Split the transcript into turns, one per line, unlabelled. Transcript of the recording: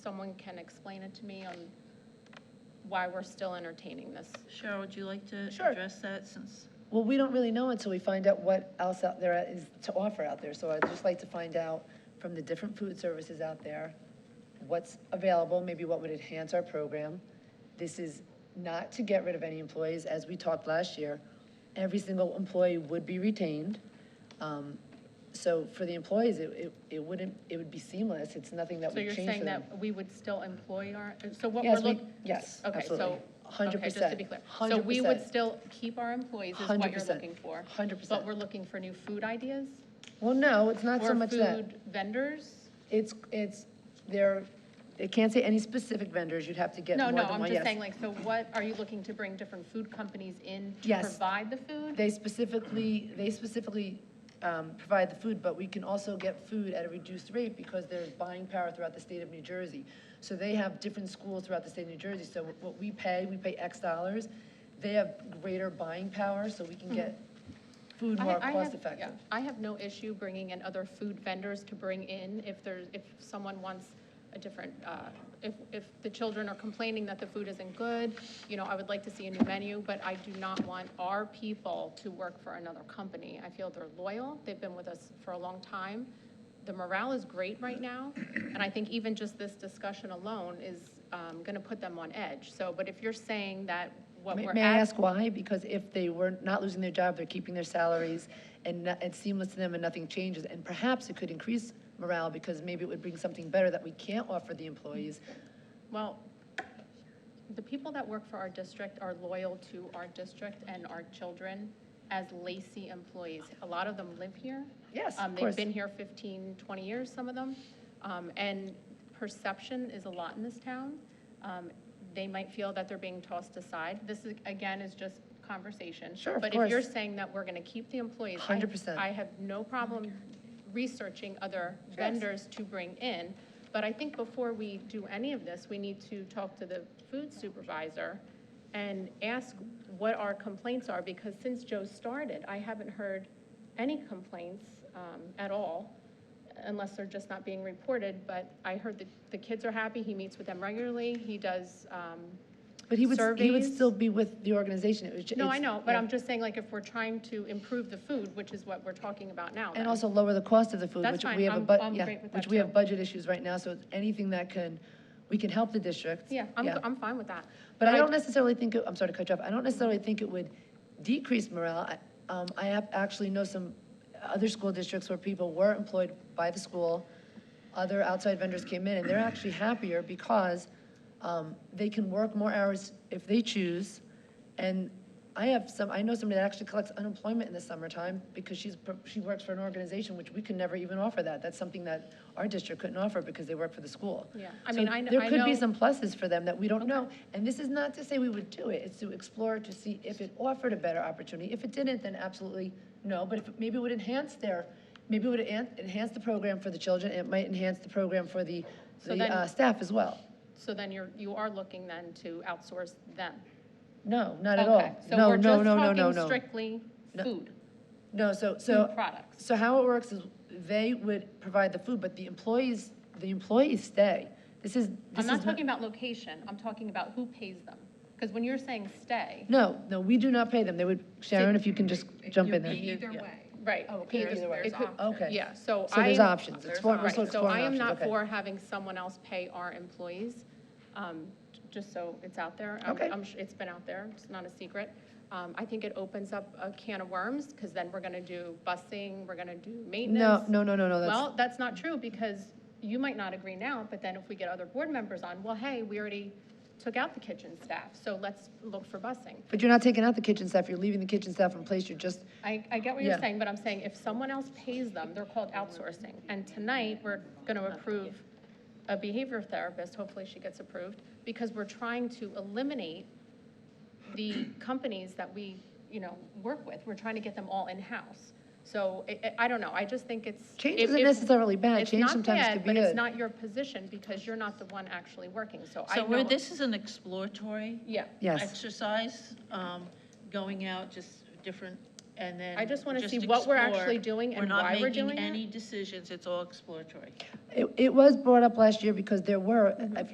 someone can explain it to me on why we're still entertaining this.
Cheryl, would you like to
Sure.
address that since?
Well, we don't really know until we find out what else out there is to offer out there. So I'd just like to find out from the different food services out there, what's available, maybe what would enhance our program. This is not to get rid of any employees, as we talked last year. Every single employee would be retained. Um, So for the employees, it, it, it wouldn't, it would be seamless. It's nothing that
So
would
you're
change for them.
saying that we would still employ our, so what we're
Yes, we,
looking.
yes,
Okay,
absolutely.
so.
Hundred
okay,
percent.
Just to be clear. So we would
100%.
still keep our employees is what you're
100%.
looking for.
100%.
But we're looking for new food ideas?
Well, no, it's not so much that.
Or food vendors?
It's, it's, there, it can't say any specific vendors, you'd have to get more
No,
than
no,
one,
I'm just
yes.
saying like, so what, are you looking to bring different food companies in to
Yes.
provide the food?
They specifically, they specifically um, provide the food, but we can also get food at a reduced rate because there's buying power throughout the state of New Jersey. So they have different schools throughout the state of New Jersey, so what we pay, we pay X dollars. They have greater buying power, so we can get food
Hmm. I-
more
I have-
cost effective.
yeah, I have no issue bringing in other food vendors to bring in if there's, if someone wants a different, uh, if, if the children are complaining that the food isn't good, you know, I would like to see a new menu, but I do not want our people to work for another company. I feel they're loyal, they've been with us for a long time. The morale is great right now, and I think even just this discussion alone is going to put them on edge. So, but if you're saying that what
May
we're.
may I
ad-
ask why? Because if they were not losing their job, they're keeping their salaries and no- it's seamless to them and nothing changes. And perhaps it could increase morale because maybe it would bring something better that we can't offer the employees.
Well, the people that work for our district are loyal to our district and our children as Lacey employees. A lot of them live here.
Yes,
Um,
of course.
They've been here 15, 20 years, some of them. Um, And perception is a lot in this town. Um, They might feel that they're being tossed aside. This is, again, is just conversation.
Sure, of
But if you're
course.
saying that we're going to keep the employees. I-
100%.
I have no problem researching other
Yes.
vendors to bring in. But I think before we do any of this, we need to talk to the food supervisor and ask what our complaints are, because since Joe started, I haven't heard any complaints um, at all, unless they're just not being reported. But I heard that the kids are happy, he meets with them regularly, he does, um,
But he would, he would
Surveys?
still be with the organization. It was ju-
no, I
it's-
know, but
yeah.
I'm just saying, like, if we're trying to improve the food, which is what we're talking about now.
And
then-
also lower the cost of the food,
That's
which
fine.
we have a,
I'm-
bu-
I'm
yeah,
great with
which
that
we
too.
have budget issues right now, so anything that can, we can help the district.
Yeah, I'm, I'm fine with that.
But I
But I-
don't necessarily think, it- I'm sorry to cut you off, I don't necessarily think it would decrease morale. I- Um, I have, actually know some other school districts where people were employed by the school, other outside vendors came in, and they're actually happier because, um, they can work more hours if they choose. And I have some, I know somebody that actually collects unemployment in the summertime because she's, pro- she works for an organization, which we could never even offer that. That's something that our district couldn't offer because they work for the school.
Yeah. I
So
mean, I kn- I
There could be
know-
some pluses for them that we don't know. And this is not to say we would do it, it's to explore to see if it offered a better opportunity. If it didn't, then absolutely no, but if, maybe it would enhance their, maybe it would en- enhance the program for the children, it might enhance the program for the,
So
the
then-
uh, staff as well.
So then you're, you are looking then to outsource them?
No, not at
Okay, So
all. No, no, no, no, no,
we're just talking
no.
strictly
No.
food,
No, so,
food
so,
products.
so how it works is they would provide the food, but the employees, the employees stay. This is, this
I'm
is.
not talking about location, I'm talking about who pays them. Because when you're saying stay,
No, no, we do not pay them. They would, Sharon, if you can just jump in there.
Either way.
right,
Oh, okay,
There's-
either way.
there's
It could-
options.
Okay.
yeah, so I.
So there's options. It's,
There's
for- we're
Right,
still
so I am
exploring options,
not
okay.
for having someone else pay our employees, um, j- just so it's out there. I'm-
Okay.
I'm, sh- it's been out there, it's not a secret. Um, I think it opens up a can of worms, because then we're going to do busing, we're going to do
No,
maintenance.
no, no, no, no, that's,
Well, that's not true, because you might not agree now, but then if we get other board members on, well, hey, we already took out the kitchen staff, so let's look for busing.
but you're not taking out the kitchen staff, you're leaving the kitchen staff in place, you're just,
I, I get what you're
Yeah.
saying, but I'm saying if someone else pays them, they're called outsourcing. And tonight, we're going to approve a behavior therapist, hopefully she gets approved, because we're trying to eliminate the companies that we, you know, work with. We're trying to get them all in-house. So I- I, I don't know, I just think it's.
change
if-
isn't
if-
necessarily bad,
It's
change
not
sometimes
bad,
could be
but it's
good.
not your position because you're not the one actually working, so I
So
know.
where this is an exploratory
Yeah.
Yes.
exercise, um, going out, just different and then.
I just wanna see what we're
explore.
actually doing and why we're doing
not making
it.
any decisions, it's all exploratory.
It, it was brought up last year because there were, uh, if